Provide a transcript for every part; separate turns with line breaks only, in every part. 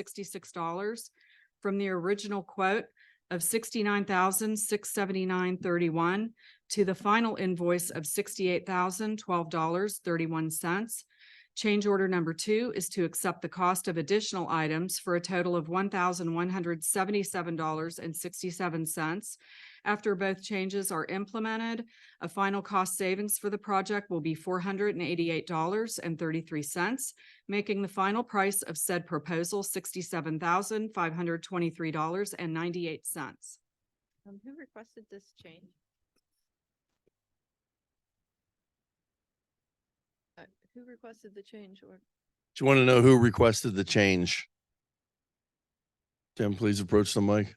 sixty-six dollars from the original quote of sixty-nine thousand, six seventy-nine thirty-one to the final invoice of sixty-eight thousand, twelve dollars, thirty-one cents. Change order number two is to accept the cost of additional items for a total of one thousand, one hundred seventy-seven dollars and sixty-seven cents. After both changes are implemented, a final cost savings for the project will be four hundred and eighty-eight dollars and thirty-three cents, making the final price of said proposal sixty-seven thousand, five hundred twenty-three dollars and ninety-eight cents.
Um, who requested this change? Uh, who requested the change or?
Do you want to know who requested the change? Tim, please approach the mic.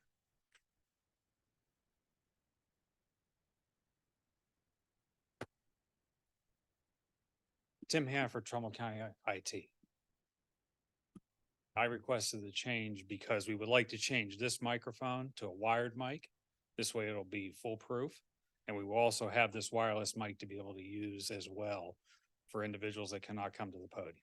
Tim Hanford, Trumbull County I- IT. I requested the change because we would like to change this microphone to a wired mic. This way it'll be foolproof. And we will also have this wireless mic to be able to use as well for individuals that cannot come to the podium.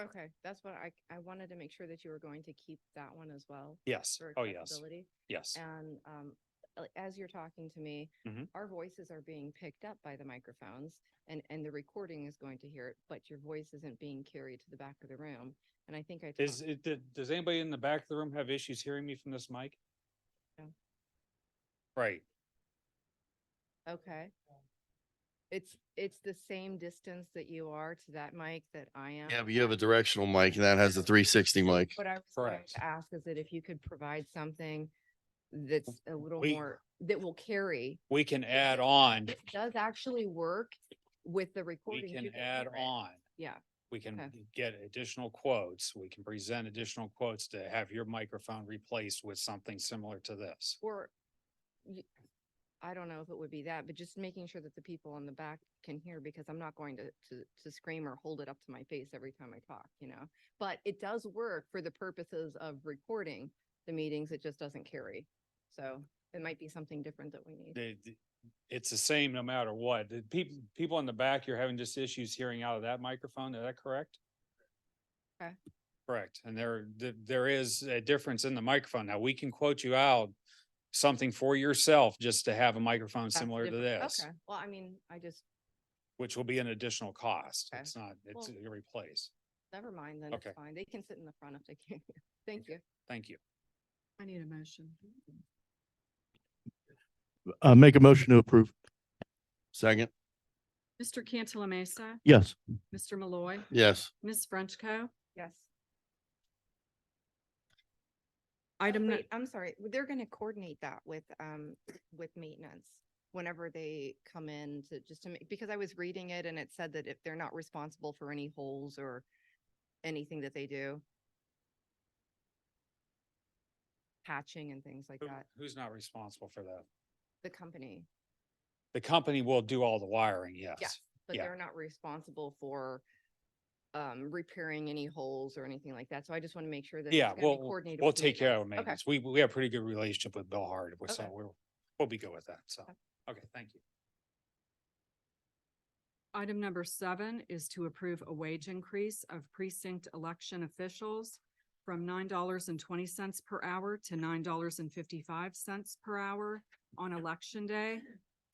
Okay, that's what I, I wanted to make sure that you were going to keep that one as well.
Yes.
for
Oh, yes.
accessibility.
Yes.
And, um, uh, as you're talking to me,
Mhm.
our voices are being picked up by the microphones and, and the recording is going to hear it, but your voice isn't being carried to the back of the room. And I think I.
Is
talked-
it, did- does anybody in the back of the room have issues hearing me from this mic?
No.
Right.
Okay. Um, It's, it's the same distance that you are to that mic that I am.
Yeah, but you have a directional mic and that has a three sixty mic.
What I was going
Correct.
to ask is that if you could provide something that's a little
We-
more, that will carry,
We can add on,
it does actually work with the recording.
we can
you
add
hear it.
on.
Yeah,
we can
Okay.
get additional quotes, we can present additional quotes to have your microphone replaced with something similar to this.
or you- I don't know if it would be that, but just making sure that the people on the back can hear because I'm not going to, to, to scream or hold it up to my face every time I talk, you know? But it does work for the purposes of recording the meetings. It just doesn't carry. So it might be something different that we need.
The- the- It's the same no matter what. The people, people in the back, you're having just issues hearing out of that microphone, is that correct?
Okay.
Correct, and there, th- there is a difference in the microphone. Now, we can quote you out something for yourself just to have a microphone
That's
similar to
different.
this,
Okay, well, I mean, I just,
which will be an additional cost.
Okay.
It's not, it's
Well-
a replace.
never mind, then it's
Okay.
fine. They can sit in the front if they can. Thank you.
Thank you.
I need a motion.
Uh, make a motion to approve.
Second?
Mr. Cantala Mesa,
Yes.
Mr. Malloy,
Yes.
Ms. Frenchco.
Yes.
Item, nu-
Wait, I'm sorry, they're gonna coordinate that with, um, with maintenance whenever they come in to, just to make, because I was reading it and it said that if they're not responsible for any holes or anything that they do. Patching and things like
Who-
that,
Who's not responsible for that?
the company,
The company will do all the wiring, yes.
but
Yeah.
they're not responsible for um, repairing any holes or anything like that. So I just want to make sure that. it's
Yeah,
gonna be
we'll,
coordinated
we'll
with
take care of
maintenance. Okay.
maintenance. We, we have a pretty good relationship with Bill Hard, which so
Okay.
we'll, we'll be good with that, so.
Okay.
Okay, thank you.
item number seven is to approve a wage increase of precinct election officials from nine dollars and twenty cents per hour to nine dollars and fifty-five cents per hour on election day.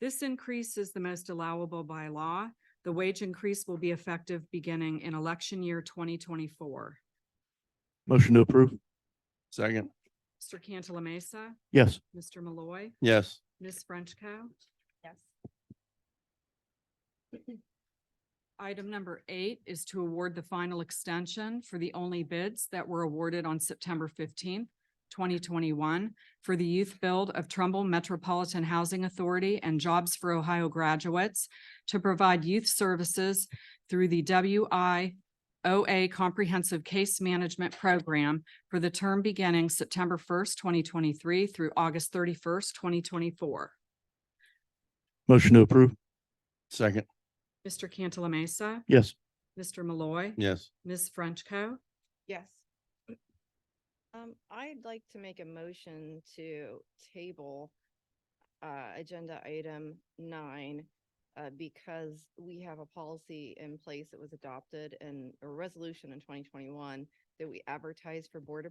This increase is the most allowable by law. The wage increase will be effective beginning in election year twenty twenty-four.
Motion to approve.
Second?
Mr. Cantala Mesa,
Yes.
Mr. Malloy,
Yes.
Ms. Frenchco.
Yes.
Item number eight is to award the final extension for the only bids that were awarded on September fifteenth, twenty twenty-one for the youth build of Trumbull Metropolitan Housing Authority and Jobs for Ohio graduates to provide youth services through the WI OA Comprehensive Case Management Program for the term beginning September first, twenty twenty-three through August thirty-first, twenty twenty-four.
Motion to approve.
Second?
Mr. Cantala Mesa,
Yes.
Mr. Malloy,
Yes.
Ms. Frenchco.
Yes. Um, I'd like to make a motion to table uh, agenda item nine uh, because we have a policy in place that was adopted and a resolution in twenty twenty-one that we advertise for board